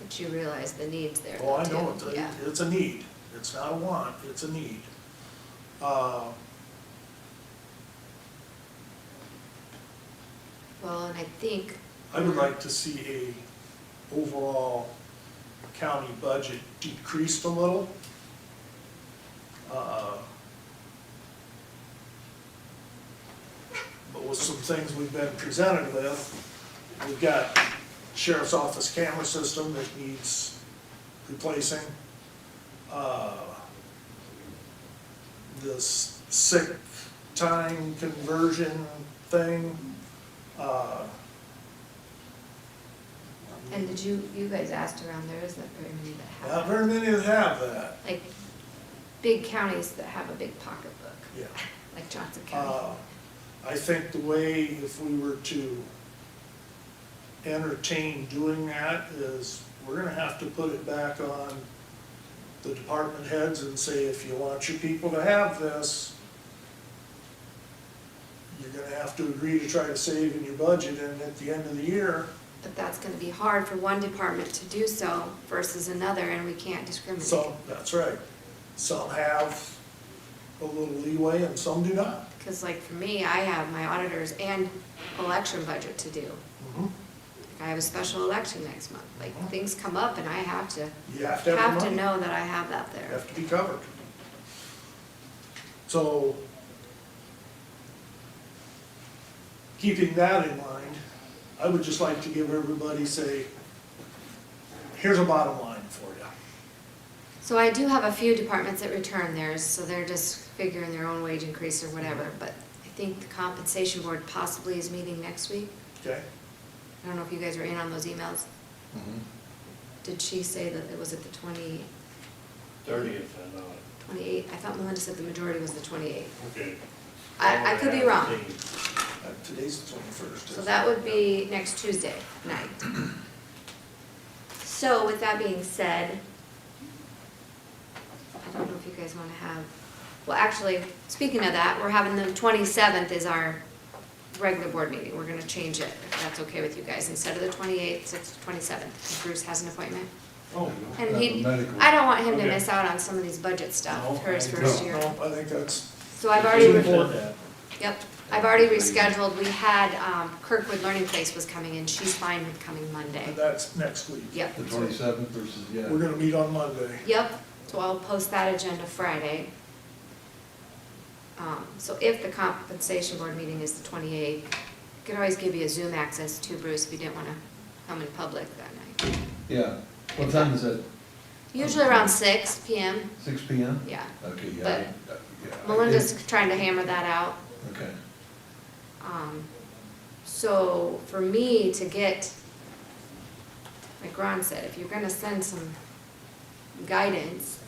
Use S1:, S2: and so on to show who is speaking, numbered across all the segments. S1: but you realize the needs there
S2: Oh, I
S1: though,
S2: know,
S1: too.
S2: it's a,
S1: Yeah,
S2: it's a need, it's not a want, it's a need. Uh,
S1: well, and I think.
S2: I
S1: Mm-hmm.
S2: would like to see a overall county budget decreased a little. Uh, But with some things we've been presented with, we've got sheriff's office camera system that needs replacing. Uh, This sick time conversion thing, uh,
S1: And did you, you guys asked around, there isn't very many that
S2: Not
S1: have.
S2: very many that have that.
S1: Like, big counties that have a big pocketbook.
S2: Yeah.
S1: Like Johnson
S2: Uh,
S1: County.
S2: I think the way, if we were to entertain doing that, is we're gonna have to put it back on the department heads and say, if you want your people to have this, you're gonna have to agree to try to save in your budget, and at the end of the year,
S1: But that's gonna be hard for one department to do so versus another, and we can't discriminate.
S2: some, that's right, some have a little leeway and some do not.
S1: Cause like for me, I have my auditors and election budget to do.
S2: Mhm.
S1: Like, I have a special election next month, like,
S2: Oh.
S1: things come up and I have to,
S2: You have to have the
S1: have to
S2: money.
S1: know that I have that there.
S2: have to be covered. So, keeping that in mind, I would just like to give everybody, say, here's a bottom line for you.
S1: So I do have a few departments that return theirs, so they're just figuring their own wage increase or whatever, but I think the compensation board possibly is meeting next week.
S2: Okay?
S1: I don't know if you guys are in on those emails. Did she say that it was at the twenty,
S3: Thirtieth, I know.
S1: twenty-eight? I thought Melinda said the majority was the twenty-eighth.
S3: Okay.
S1: I, I could be wrong,
S2: Uh, Today's the twenty-first.
S1: so that would be next Tuesday night. So with that being said, I don't know if you guys wanna have, well, actually, speaking of that, we're having the twenty-seventh is our regular board meeting, we're gonna change it, if that's okay with you guys, instead of the twenty-eighth, it's the twenty-seventh, Bruce has an appointment.
S2: Oh,
S1: And he,
S4: Medical.
S1: I don't want him to
S2: Okay.
S1: miss out on some of these budget
S2: No,
S1: stuff for his
S2: I
S1: first
S2: don't
S1: year.
S2: know. I think that's.
S1: So I've already,
S2: Shouldn't
S1: re-
S2: afford that.
S1: yep, I've already rescheduled, we had, um, Kirkwood Learning Place was coming in, she's fine with coming Monday.
S2: And that's next week.
S1: Yep,
S4: The twenty-seventh versus, yeah.
S2: We're gonna meet on Monday.
S1: yep, so I'll post that agenda Friday. Um, so if the compensation board meeting is the twenty-eighth, I could always give you a Zoom access too, Bruce, if you didn't wanna come in public that night.
S4: Yeah. What time is it?
S1: Usually around six PM,
S4: Six P M?
S1: yeah.
S4: Okay, yeah.
S1: But
S4: I- yeah, I
S1: Melinda's
S4: did-
S1: trying to hammer that out.
S4: Okay.
S1: Um, So for me to get, like Ron said, if you're gonna send some guidance,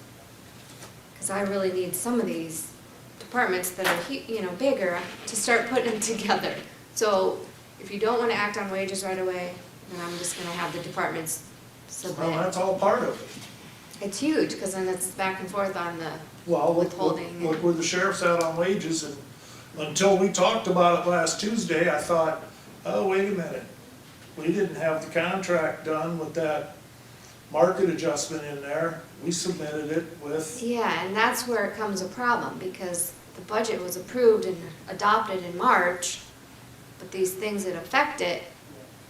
S1: because I really need some of these departments that are, hu- you know, bigger, to start putting them together. So if you don't wanna act on wages right away, then I'm just gonna have the departments
S2: Well,
S1: submit.
S2: that's all part of it.
S1: It's huge, because then it's back and forth on the,
S2: Well, look- look,
S1: Withholding.
S2: look where the sheriff's at on wages, and until we talked about it last Tuesday, I thought, oh, wait a minute. We didn't have the contract done with that market adjustment in there, we submitted it with,
S1: Yeah, and that's where it comes a problem, because the budget was approved and adopted in March, but these things that affect it,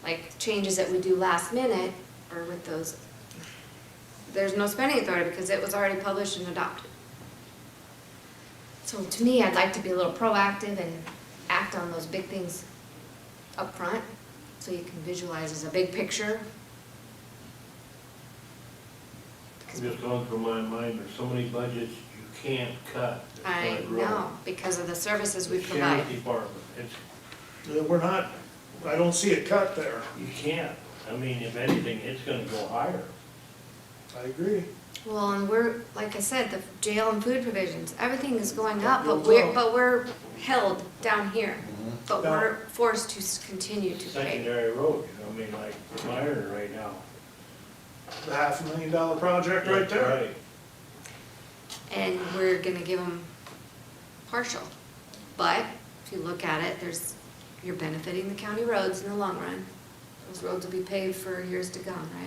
S1: like changes that we do last minute, or with those, there's no spending authority because it was already published and adopted. So to me, I'd like to be a little proactive and act on those big things up front, so you can visualize as a big picture. Because
S3: Just going through my mind, there's so many budgets you can't cut. It's
S1: I
S3: like wrong.
S1: know, because of the services we
S3: Sheriff
S1: provide.
S3: Department, it's,
S2: uh, we're not, I don't see a cut there.
S3: you can't, I mean, if anything, it's gonna go higher.
S2: I agree.
S1: Well, and we're, like I said, the jail and food provisions, everything is going up, but
S2: Goes
S1: we're,
S2: up.
S1: but we're held down here. But
S2: Down.
S1: we're forced to s- continue to pay.
S3: Secondary road, I mean, like Myron right now.
S2: The half a million dollar project right there.
S3: Right.
S1: And we're gonna give them partial. But if you look at it, there's, you're benefiting the county roads in the long run. Those roads will be paved for years to come, right?